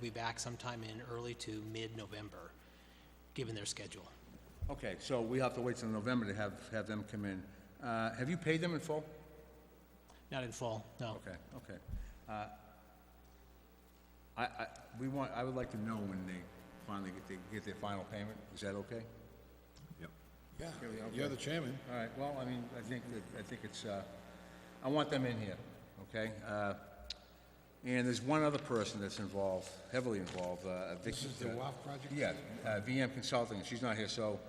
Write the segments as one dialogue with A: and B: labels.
A: be back sometime in early to mid-November, given their schedule.
B: Okay, so we have to wait till November to have, have them come in. Uh, have you paid them in full?
A: Not in fall, no.
B: Okay, okay. Uh, I, I, we want, I would like to know when they finally get, they get their final payment. Is that okay?
C: Yeah,
B: we go.
C: you're the chairman.
B: All right, well, I mean, I think that, I think it's, uh, I want them in here, okay? Uh, and there's one other person that's involved, heavily involved, uh, Vicky.
C: This is the WAF project?
B: Yeah, uh, VM Consulting, and she's not here, so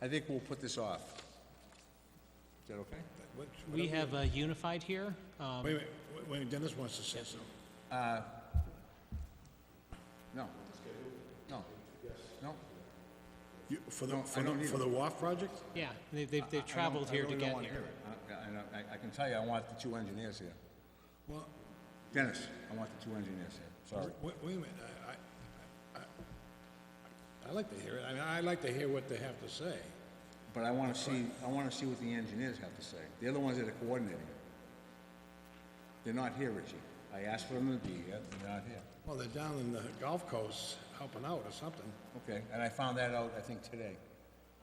B: I think we'll put this off. Is that okay?
C: What-
A: We have uh, Unified here. Um,
C: Wait, wait, wait, wait, Dennis wants to say something.
B: No. No. No?
C: You- For the,
B: No, I
C: for
B: don't
C: the,
B: need
C: for
B: it.
C: the WAF project?
A: Yeah, they- they've they've
B: I don't-
A: traveled
B: I
A: here to
B: really don't
A: get
B: wanna
A: here.
B: hear it. I- I know- I, I can tell you, I want the two engineers here.
C: Well,
B: Dennis, I want the two engineers here, sorry.
C: wait, wait a minute, I, I, I, I like to hear it, I mean, I like to hear what they have to say.
B: But I wanna see, I wanna see what the engineers have to say. They're the ones that are coordinating it. They're not here, Richie. I asked for them to be here, they're not here.
C: Well, they're down in the Gulf Coast helping out or something.
B: Okay, and I found that out, I think, today.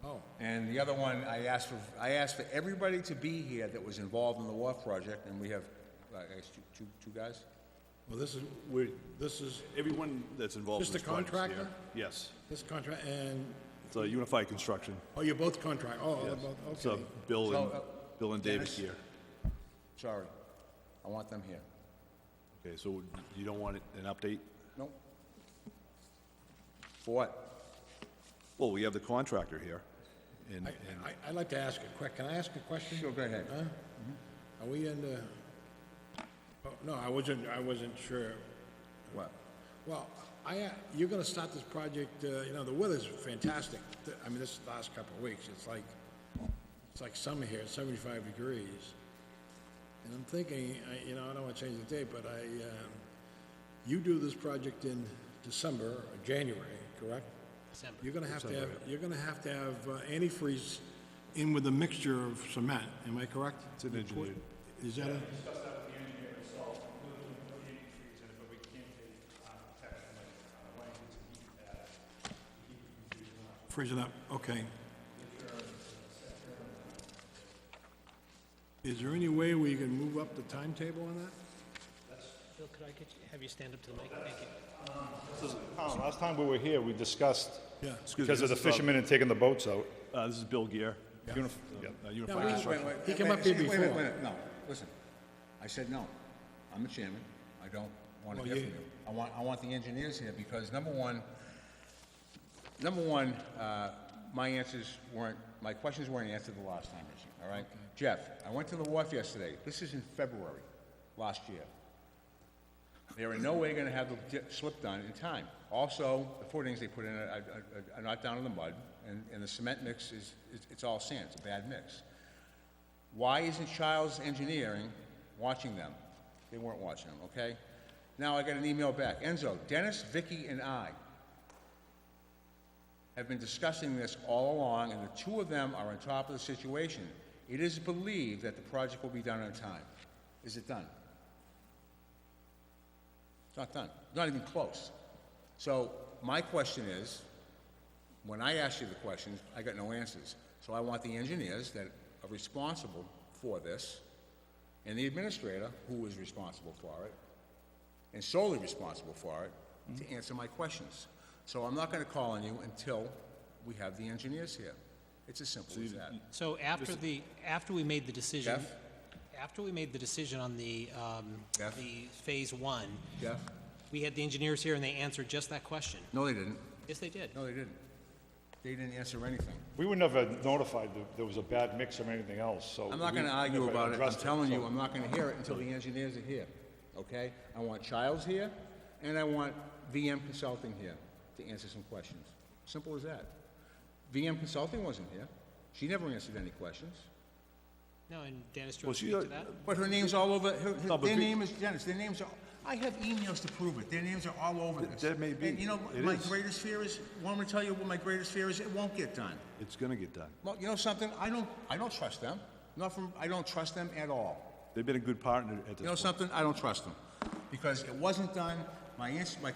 C: Oh,
B: And the other one, I asked for, I asked for everybody to be here that was involved in the wharf project, and we have, uh, I guess, two, two, two guys?
C: well, this is,
D: We're,
C: this is,
D: everyone that's involved in
C: Just
D: this
C: a
D: project is
C: contractor?
D: here. Yes,
C: this contract, and,
D: it's a Unified Construction.
C: oh, you're both contract, oh, they're both,
D: So
C: okay.
D: Bill and,
B: So, uh,
D: Bill and David
B: Dennis?
D: here.
B: Sorry. I want them here.
D: Okay, so you don't want an update?
B: Nope. For what?
D: Well, we have the contractor here, and,
C: I,
D: and
C: I, I'd like to ask a quick, can I ask a question?
B: Sure, go ahead.
C: Huh? Are we in the, oh, no, I wasn't, I wasn't sure.
B: What?
C: Well, I, uh, you're gonna start this project, uh, you know, the weather's fantastic. Th- I mean, this last couple of weeks, it's like, it's like summer here, seventy-five degrees. And I'm thinking, I, you know, I don't wanna change the date, but I, um, you do this project in December or January, correct?
A: December.
C: You're gonna have to have, you're gonna have to have uh, antifreeze in with a mixture of cement, am I correct? It's an engineered. Is that a? uh, Freezing up, okay. Is there any way we can move up the timetable on that?
A: Phil, could I get you- have you stand up to the mic? Thank you.
E: Tom, last time we were here, we discussed,
C: Yeah.
D: Excuse me,
E: because of the
B: um,
D: this is, uh,
E: fishermen and taking the boats out.
D: uh, this is Bill Gear. Unif- uh, Unified
C: we-
D: Construction.
C: He came up here
B: wait, Wait, wait,
C: before.
B: wait, no, listen. I said no. I'm the chairman. I don't want to hear
C: Well, you-
B: from you. I want, I want the engineers here because number one, number one, uh, my answers weren't, my questions weren't answered the last time, Richie, all right? Jeff, I went to the wharf yesterday. This is in February, last year. They are in no way gonna have the di- slip done in time. Also, the footings they put in are, are- are not down in the mud, and, and the cement mix is, is- it's all sand, it's a bad mix. Why isn't Childs Engineering watching them? They weren't watching them, okay? Now I got an email back. Enzo, Dennis, Vicky, and I have been discussing this all along, and the two of them are on top of the situation. It is believed that the project will be done on time. Is it done? It's not done. Not even close. So my question is, when I asked you the questions, I got no answers. So I want the engineers that are responsible for this, and the administrator, who is responsible for it, and solely responsible for it, to answer my questions. So I'm not gonna call on you until we have the engineers here. It's as simple as that.
A: So after the, after we made the decision,
B: Jeff?
A: after we made the decision on the, um,
B: Jeff?
A: the Phase One,
B: Jeff?
A: we had the engineers here and they answered just that question.
B: No, they didn't.
A: Yes, they did.
B: No, they didn't. They didn't answer anything.
E: We were never notified that there was a bad mix or anything else, so.
B: I'm not
E: we
B: gonna argue
E: never
B: about it, I'm
E: addressed
B: telling you,
E: so-
B: I'm not gonna hear it until the engineers are here, okay? I want Childs here, and I want VM Consulting here to answer some questions. Simple as that. VM Consulting wasn't here, she never answered any questions.
A: No, and Dennis, do you
D: Well,
A: want to
D: she,
A: speak
D: uh,
A: to that?
B: But her name's all over, her, her-
D: No, but
B: their
D: we-
B: name is Dennis, their names are, I have emails to prove it, their names are all over this.
D: that may be.
B: And you know, what
D: It
B: my
D: is.
B: greatest fear is, want me to tell you what my greatest fear is? It won't get done.
D: It's gonna get done.
B: Well, you know something, I don't, I don't trust them, not from, I don't trust them at all.
D: They've been a good partner at this
B: You know
D: point.
B: something? I don't trust them. Because it wasn't done, my answer, my